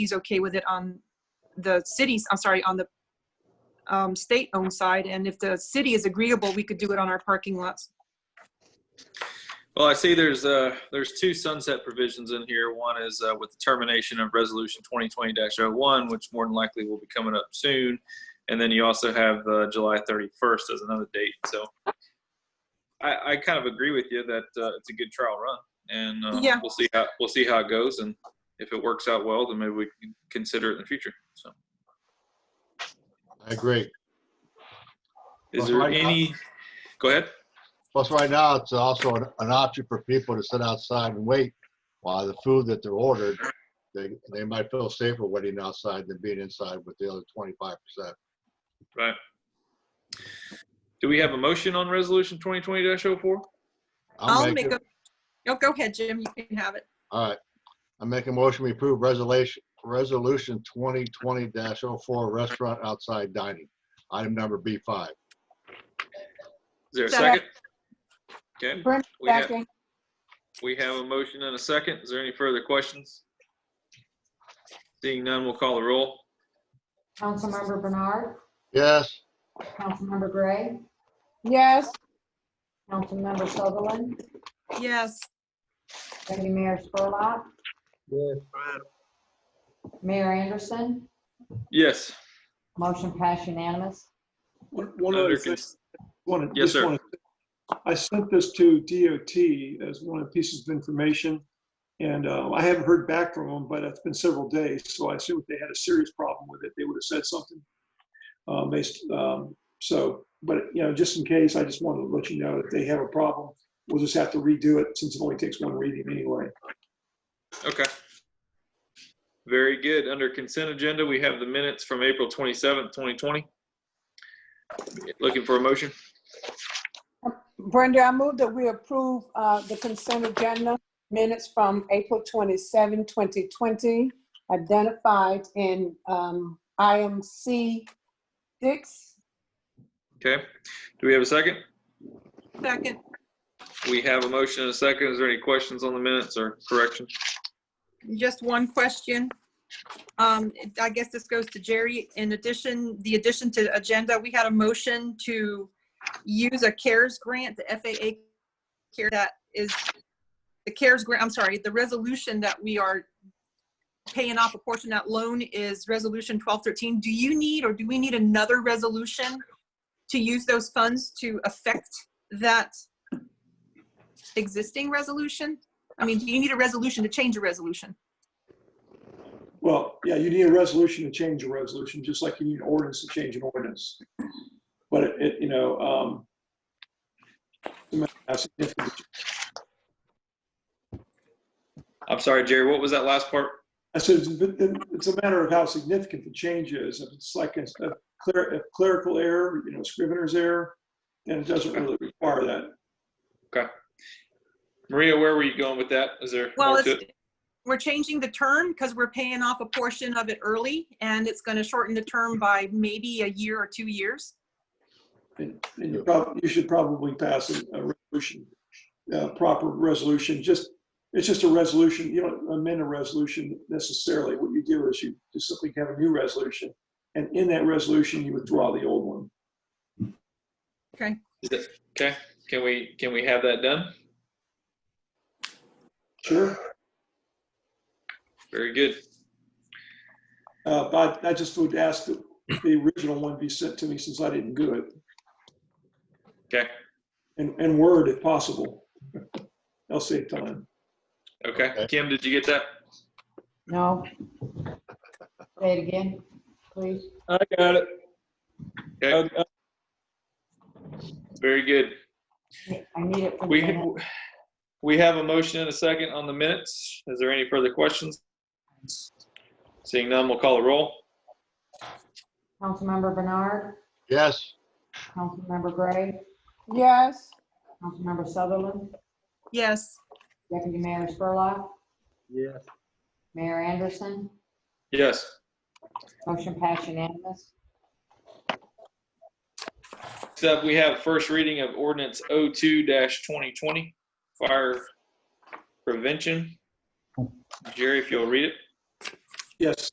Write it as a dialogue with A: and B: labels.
A: he's okay with it on the city's, I'm sorry, on the um, state-owned side, and if the city is agreeable, we could do it on our parking lots.
B: Well, I see there's, uh, there's two sunset provisions in here. One is, uh, with the termination of resolution twenty twenty oh one which more than likely will be coming up soon. And then you also have, uh, July thirty-first as another date. So I, I kind of agree with you that, uh, it's a good trial run and, uh,
A: Yeah.
B: we'll see how, we'll see how it goes. And if it works out well, then maybe we can consider it in the future. So
C: I agree.
B: is there
C: Well, I-
B: any, go ahead.
C: Plus, right now, it's also an, an option for people to sit outside and wait while the food that they're ordered, they, they might feel safer waiting outside than being inside with the other twenty-five percent.
B: Right. Do we have a motion on resolution twenty twenty oh 4
A: I'll make a, oh, go ahead, Jim, you can have it.
C: All right. I make a motion, we approve resolution, resolution twenty twenty 4 restaurant outside dining. Item number B five.
B: Is there a second?
D: Second.
B: Okay,
D: Brent
B: we have,
D: second.
B: we have a motion and a second. Is there any further questions? Seeing none, we'll call the roll.
E: Councilmember Bernard,
C: Yes,
E: Councilmember Gray,
D: Yes,
E: Councilmember Sutherland,
A: Yes,
E: Deputy Mayor Spurlock. Mayor Anderson,
B: Yes,
E: motion passed unanimous.
F: One one
B: Under
F: other
B: con-
F: thing. One-
B: Yes,
F: just
B: sir.
F: one- I sent this to DOT as one of the pieces of information, and uh, I haven't heard back from them, but it's been several days, so I assume if they had a serious problem with it, they would have said something. Um, They, s- um, so, but, you know, just in case, I just wanted to let you know if they have a problem, we'll just have to redo it since it only takes one reading anyway.
B: okay. Very good. Under consent agenda, we have the minutes from April twenty-seventh, twenty twenty. Looking for a motion?
D: Brenda, I move that we approve uh, the consent agenda minutes from April 27, 2020, identified in um, IMC 6.
B: Okay. Do we have a second?
A: second,
B: We have a motion and a second. Is there any questions on the minutes or correction?
A: just one question. Um, it- I guess this goes to Jerry. In addition, the addition to agenda, we had a motion to use a CARES grant, the FAA care that is, the CARES grant, I'm sorry, the resolution that we are paying off a portion of that loan is Resolution 1213. Do you need, or do we need another resolution to use those funds to affect that existing resolution? I mean, do you need a resolution to change a resolution?
F: Well, yeah, you need a resolution to change a resolution, just like you need an ordinance to change an ordinance. But it- it, you know, um, it might have significant-
B: I'm sorry, Jerry, what was that last part?
F: I said, it's a- it's a matter of how significant the change is. If it's like a a cler- a clerical error, you know, scrivener's error, then it doesn't really require that.
B: Maria, where were you going with that? Is there
A: Well,
B: more to
A: it's,
B: it?
A: we're changing the term because we're paying off a portion of it early and it's going to shorten the term by maybe a year or two years.
F: And and you probably, you should probably pass a a resolution, a proper resolution, just, it's just a resolution, you don't amend a resolution necessarily. What you do is you just simply have a new resolution, and in that resolution, you withdraw the old one.
B: Is it? Okay, can we, can we have that done?
F: Sure.
B: Very good.
F: Uh, But I just would ask that the original one be sent to me since I didn't do it,
B: Okay,
F: and, and Word if possible. I'll save time.
B: okay.
C: Okay.
B: Kim, did you get that?
E: No. Say it again, please.
G: I got it.
B: Okay,
G: I- I-
B: very good.
E: I need it for the
B: We,
E: minute.
B: we have a motion and a second on the minutes. Is there any further questions? Seeing none, we'll call a roll.
E: Councilmember Bernard,
C: yes,
E: Councilmember Gray,
D: Yes,
E: Councilmember Sutherland,
A: Yes,
E: Deputy Mayor Spurlock,
G: Yes.
E: Mayor Anderson,
B: Yes,
E: motion passed unanimous.
B: next up, we have first reading of ordinance O two twenty twenty, fire prevention. Jerry, if you'll read it.
F: Yes,